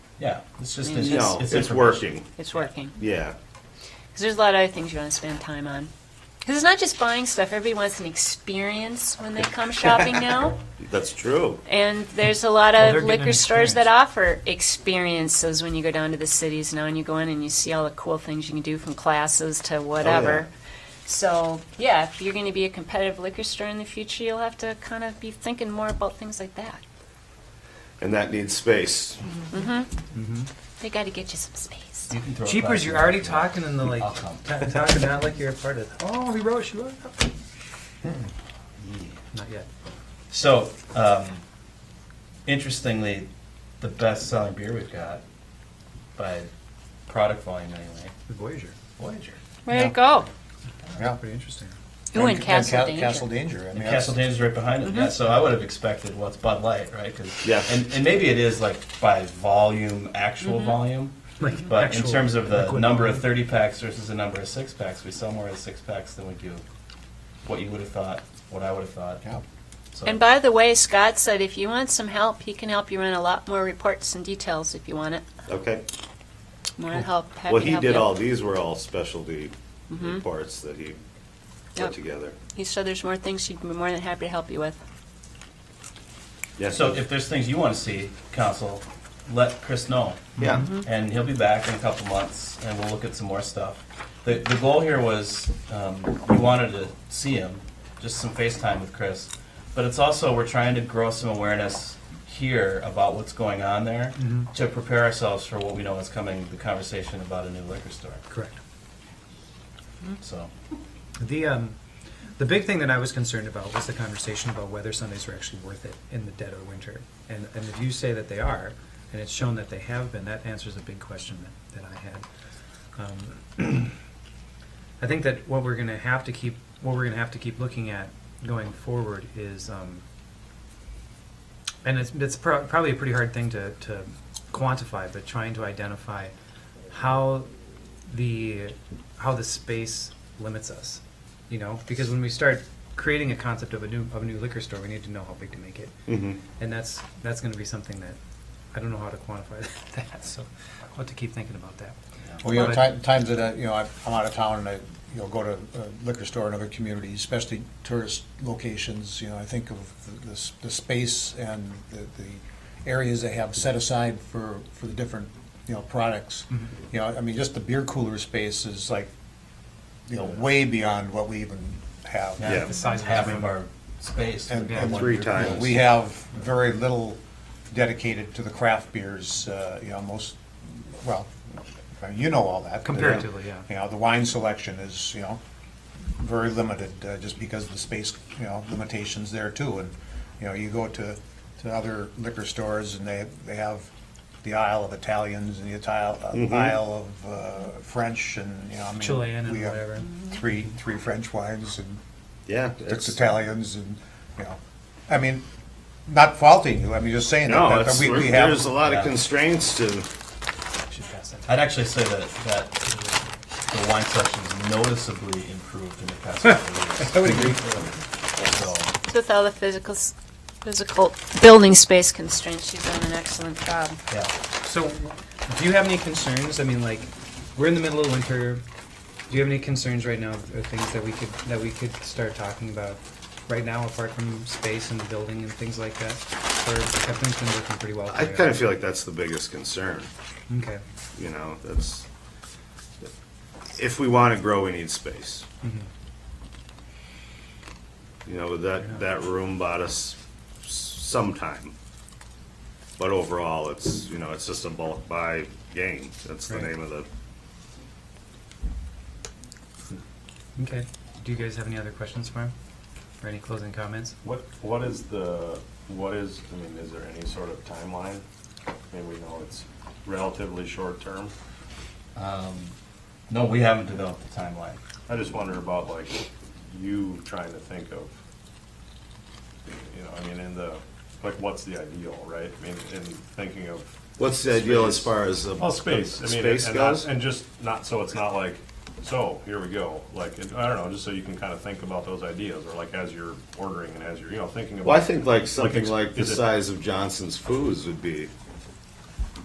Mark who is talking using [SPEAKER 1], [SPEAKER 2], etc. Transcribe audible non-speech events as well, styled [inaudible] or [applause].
[SPEAKER 1] Yeah, it's just, it's,
[SPEAKER 2] No,
[SPEAKER 1] it's
[SPEAKER 2] it's
[SPEAKER 1] information.
[SPEAKER 2] working,
[SPEAKER 3] It's working.
[SPEAKER 2] yeah.
[SPEAKER 3] Because there's a lot of other things you want to spend time on. Because it's not just buying stuff. Everybody wants an experience when they come shopping now.
[SPEAKER 2] That's true.
[SPEAKER 3] And there's a lot
[SPEAKER 1] Oh, they're
[SPEAKER 3] of
[SPEAKER 1] getting an
[SPEAKER 3] liquor stores that offer experiences when you go down to the cities now and you go in and you see all the cool things you can do from classes to whatever. So, yeah, if you're going to be a competitive liquor store in the future, you'll have to kind of be thinking more about things like that.
[SPEAKER 2] And that needs space.
[SPEAKER 3] They got to get you some space.
[SPEAKER 1] You can throw a
[SPEAKER 4] Jeepers,
[SPEAKER 1] prize
[SPEAKER 4] you're
[SPEAKER 1] in.
[SPEAKER 4] already talking in the like,
[SPEAKER 1] I'll come.
[SPEAKER 4] ta- talking not like you're a part of it. Oh, he wrote, she wrote.
[SPEAKER 1] Hmm.
[SPEAKER 4] Not yet.
[SPEAKER 1] So, um, interestingly, the best-selling beer we've got by product volume anyway,
[SPEAKER 4] The Voyager.
[SPEAKER 1] Voyager.
[SPEAKER 3] Where'd it go?
[SPEAKER 5] Yeah, pretty interesting.
[SPEAKER 3] Ooh, and Castle
[SPEAKER 5] Ca-
[SPEAKER 3] Danger.
[SPEAKER 5] Castle Danger. I
[SPEAKER 1] And
[SPEAKER 5] mean,
[SPEAKER 1] Castle Danger's right behind
[SPEAKER 4] Mm-hmm.
[SPEAKER 1] it. Yeah, so I would have expected what's Bud Light, right? 'Cause-
[SPEAKER 2] Yeah.
[SPEAKER 1] And, and maybe it is like by volume, actual volume.
[SPEAKER 4] Like
[SPEAKER 1] But
[SPEAKER 4] Mm-hmm. actual
[SPEAKER 1] in terms of the
[SPEAKER 4] liquid
[SPEAKER 1] number of
[SPEAKER 4] volume.
[SPEAKER 1] 30 packs versus the number of six packs, we sell more of six packs than we do what you would have thought, what I would have thought.
[SPEAKER 5] Yeah.
[SPEAKER 1] So,
[SPEAKER 3] And by the way, Scott said if you want some help, he can help you run a lot more reports and details if you want it.
[SPEAKER 2] Okay.
[SPEAKER 3] More help. happy
[SPEAKER 2] Well,
[SPEAKER 3] to
[SPEAKER 2] he
[SPEAKER 3] help
[SPEAKER 2] did
[SPEAKER 3] you.
[SPEAKER 2] all, these were all specialty reports that he
[SPEAKER 3] Yep.
[SPEAKER 2] put together.
[SPEAKER 3] He said there's more things he'd be more than happy to help you with.
[SPEAKER 2] Yeah.
[SPEAKER 1] so if there's things you want to see, Council, let Chris know.
[SPEAKER 2] Yeah,
[SPEAKER 4] Mm-hmm.
[SPEAKER 1] and he'll be back in a couple months, and we'll look at some more stuff. The, the goal here was, um, we wanted to see him, just some FaceTime with Chris, but it's also, we're trying to grow some awareness here about what's going on there, to prepare ourselves for what we know is coming, the conversation about a new liquor store,
[SPEAKER 4] Correct.
[SPEAKER 1] so.
[SPEAKER 4] The um, the big thing that I was concerned about was the conversation about whether Sundays were actually worth it in the dead of winter. And and if you say that they are, and it's shown that they have been, that answers a big question that, that I had. Um, [clears throat] I think that what we're going to have to keep what we're going to have to keep looking at going forward is, um, and it's it's pro- probably a pretty hard thing to to quantify, but trying to identify how the how the space limits us, you know, because when we start creating a concept of a new of a new liquor store, we need to know how big to make it,
[SPEAKER 2] Mhm.
[SPEAKER 4] and that's that's going to be something that I don't know how to quantify [laughs] that, so I'll have to keep thinking about that.
[SPEAKER 5] Well, you know,
[SPEAKER 4] But-
[SPEAKER 5] ti- times that, I- you know, I- I'm out of town and I, you know, go to a liquor store in other communities, especially tourist locations, you know, I think of the- the, s- the space and the, the areas they have set aside for, for the different, you know, products.
[SPEAKER 4] Mm-hmm.
[SPEAKER 5] You know, I mean, just the beer cooler space is like, you know, way beyond what we even have.
[SPEAKER 2] Yeah.
[SPEAKER 4] the size of
[SPEAKER 1] half
[SPEAKER 4] the
[SPEAKER 1] of our space.
[SPEAKER 5] And-
[SPEAKER 4] Yeah,
[SPEAKER 5] and,
[SPEAKER 2] three
[SPEAKER 5] you know,
[SPEAKER 2] times.
[SPEAKER 5] We have very little dedicated to the craft beers, uh, you know, most, well, you know all that. uh,
[SPEAKER 4] Comparatively, yeah.
[SPEAKER 5] You know, the wine selection is, you know, very limited, uh, just because of the space, you know, limitations there too. And, you know, you go to, to other liquor stores and they, they have the aisle of Italians and the Ital-
[SPEAKER 2] Mm-hmm.
[SPEAKER 5] uh, aisle of uh, French and, you know, I mean.
[SPEAKER 4] Chilean and
[SPEAKER 5] we have
[SPEAKER 4] whatever.
[SPEAKER 5] Three, three French wines and
[SPEAKER 2] yeah.
[SPEAKER 5] it's
[SPEAKER 2] it's-
[SPEAKER 5] Italians and, you know, I mean, not faulting you, I mean, just saying that-
[SPEAKER 2] No,
[SPEAKER 5] that, that
[SPEAKER 2] it's,
[SPEAKER 5] we, we have.
[SPEAKER 2] there's a lot
[SPEAKER 1] yeah.
[SPEAKER 2] of constraints to,
[SPEAKER 4] Should pass that.
[SPEAKER 1] I'd actually say that, that the wine section is noticeably improved in the past couple of years. So,
[SPEAKER 3] With all the physical, s- physical building space constraints, you've done an excellent job.
[SPEAKER 1] yeah.
[SPEAKER 4] So, do you have any concerns? I mean, like, we're in the middle of winter. Do you have any concerns right now, or things that we could that we could start talking about right now, apart from space and the building and things like that? Or have things been working pretty well?
[SPEAKER 2] I kind of feel like that's the biggest concern,
[SPEAKER 4] feel okay.
[SPEAKER 2] you know, that's, if we want to grow, we need space.
[SPEAKER 4] Mm-hmm.
[SPEAKER 2] You know, that, that room bought us s- some time. But overall, it's, you know, it's just a bulk buy game. That's the
[SPEAKER 4] Right.
[SPEAKER 2] name of the,
[SPEAKER 4] Okay. Do you guys have any other questions for him, or any closing comments?
[SPEAKER 6] What, what is the, what is, I mean, is there any sort of timeline? I mean, we know it's relatively short-term.
[SPEAKER 1] Um, No, we haven't developed a timeline.
[SPEAKER 6] I just wonder about like you trying to think of, you know, I mean, in the, like, what's the ideal, right? I mean, in thinking of,
[SPEAKER 2] what's the ideal as far as the.
[SPEAKER 6] well, space, I mean,
[SPEAKER 2] Space
[SPEAKER 6] and not-
[SPEAKER 2] goes?
[SPEAKER 6] And just not, so it's not like, so, here we go, like, I don't know, just so you can kind of think about those ideas, or like as you're ordering and as you're, you know, thinking about.
[SPEAKER 2] Well, I think like something
[SPEAKER 6] ex-
[SPEAKER 2] like the
[SPEAKER 6] is it-
[SPEAKER 2] size of Johnson's Foods would be